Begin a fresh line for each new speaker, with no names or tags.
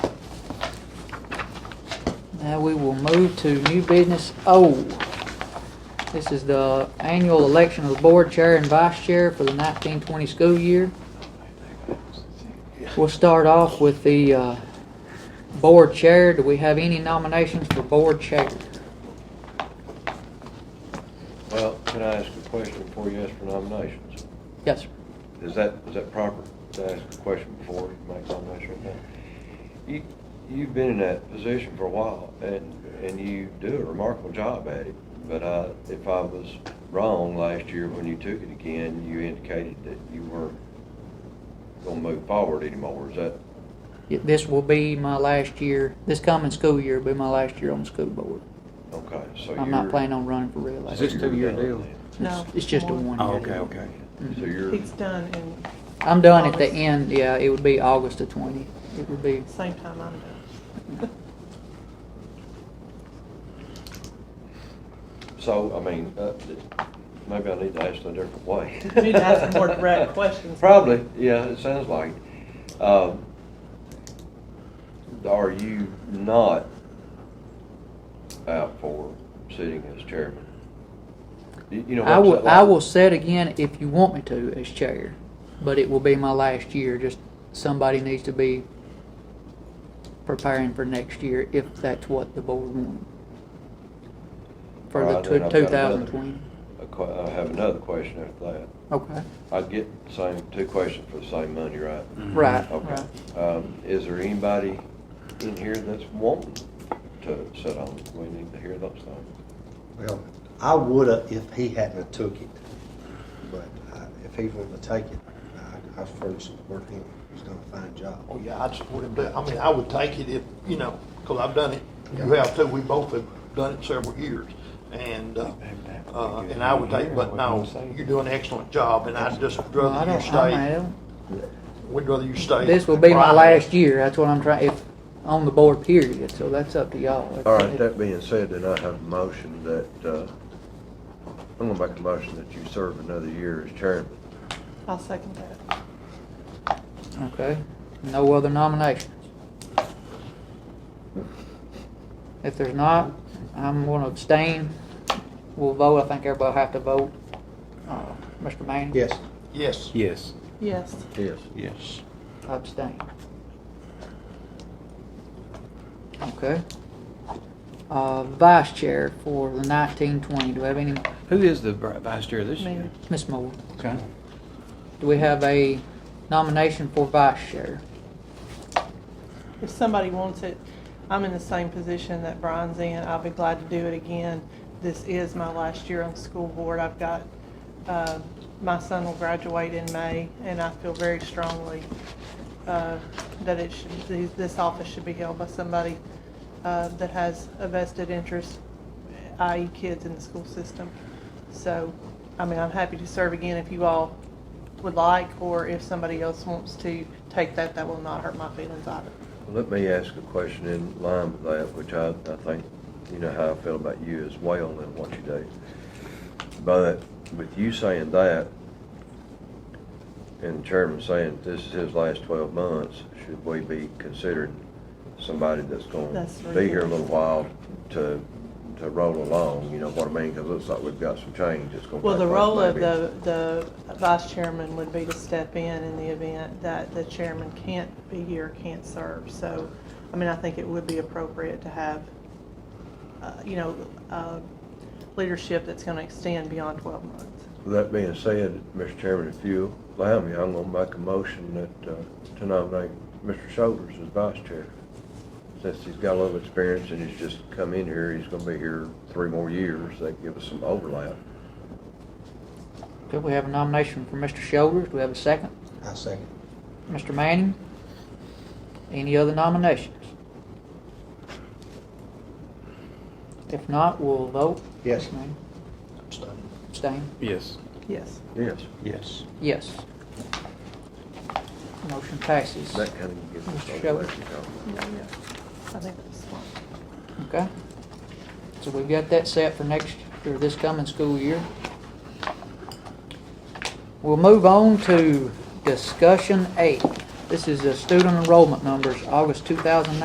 Now we will move to new business O. This is the annual election of the board chair and vice chair for the nineteen twenty school year. We'll start off with the, uh, board chair. Do we have any nominations for board chair?
Well, can I ask a question before you ask for nominations?
Yes, sir.
Is that, is that proper to ask a question before you make nomination? You, you've been in that position for a while and, and you do a remarkable job at it. But I, if I was wrong last year when you took it again, you indicated that you weren't gonna move forward anymore. Is that,
Y- This will be my last year, this coming school year will be my last year on the school board.
okay, so you're.
I'm not planning on running for
so
reelection.
Is this
you're
two-year
done
deal?
then.
No.
It's just a one
Oh,
year.
okay, okay.
So you're,
It's done in
I'm done at the
August.
end, yeah, it would be August the twenty. It would be,
same time I'm done.
so, I mean, uh, maybe I need to ask it a different way.
You need to ask more direct questions.
Probably, yeah, it sounds like. it. Um, Are you not out for sitting as chairman? You you know what
I
I'm
will,
saying?
I will set again if you want me to as chair, but it will be my last year, just somebody needs to be preparing for next year if that's what the board wanted. For
All
the
right, then
two,
I've
two
got
thousand
another-
twenty,
a que- I have another question after that.
okay,
I get the same, two questions for the same money, right?
right,
Okay.
right.
Um, Is there anybody in here that's wanting to sit on? it? We need to hear those things.
Well, I would've if he hadn't have took it, but uh, if he wouldn't have taken it, I, I fully support him. He's done a fine job.
Oh, yeah, I'd support him, but, I mean, I would take it if, you know, because I've done it, you have too, we both have done it several years. And, uh, uh, and I would take, but no, you're doing an excellent job, and I'd just
Well, I
rather you
don't, I
stay,
don't,
we'd rather you stay.
This will be my
Right.
last year, that's what I'm trying, if, on the board period, so that's up to y'all.
All right, that being said, then I have a motion that, uh, I'm gonna make a motion that you serve another year as chairman.
I'll second that.
Okay, no other nominations? If there's not, I'm gonna abstain. We'll vote, I think everybody have to vote. Uh, Mr. Manning?
Yes,
Yes,
Yes.
Yes,
Yes.
Yes.
Abstain. Okay. Uh, vice chair for the nineteen twenty, do we have any,
Who is the vi- vice chair this
Me.
year?
Ms. Moore?
Okay.
Do we have a nomination for vice chair?
if somebody wants it, I'm in the same position that Brian's in, I'll be glad to do it again. This is my last year on the school board, I've got, uh, my son will graduate in May, and I feel very strongly, uh, that it should, th- this office should be held by somebody, uh, that has a vested interest, i.e. kids in the school system. So, I mean, I'm happy to serve again if you all would like, or if somebody else wants to take that, that will not hurt my feelings either.
Let me ask a question in line with that, which I, I think, you know how I feel about you as well and what you do. But with you saying that, and the chairman saying this is his last twelve months, should we be considering somebody that's gonna
That's
be here a little while to, to roll along, you know what I mean? Cause it looks like we've got some change that's gonna.
Well, the
take place
role of
maybe.
the, the vice chairman would be to step in in the event that the chairman can't be here, can't serve. So, I mean, I think it would be appropriate to have, uh, you know, uh, leadership that's going to extend beyond 12 months.
That being said, Mr. Chairman, if you allow me, I'm gonna make a motion that, uh, to nominate Mr. Shoulders as vice chair. Since he's got a little experience and he's just come in here, he's gonna be here three more years, that give us some overlap.
Okay, we have a nomination for Mr. Shoulders. Do we have a second?
I second.
Mr. Manning? Any other nominations? If not, we'll vote.
Yes.
Mr. Manning?
Abstain.
Abstain?
Yes.
Yes.
Yes.
Yes.
Yes. Motion passes.
That kind of gives us
Mr. Shoulders.
overlap. you know.
Yeah, yeah. I think that's fine.
Okay. So we've got that set for next, or this coming school year. We'll move on to discussion eight. This is the student enrollment numbers, August 2019.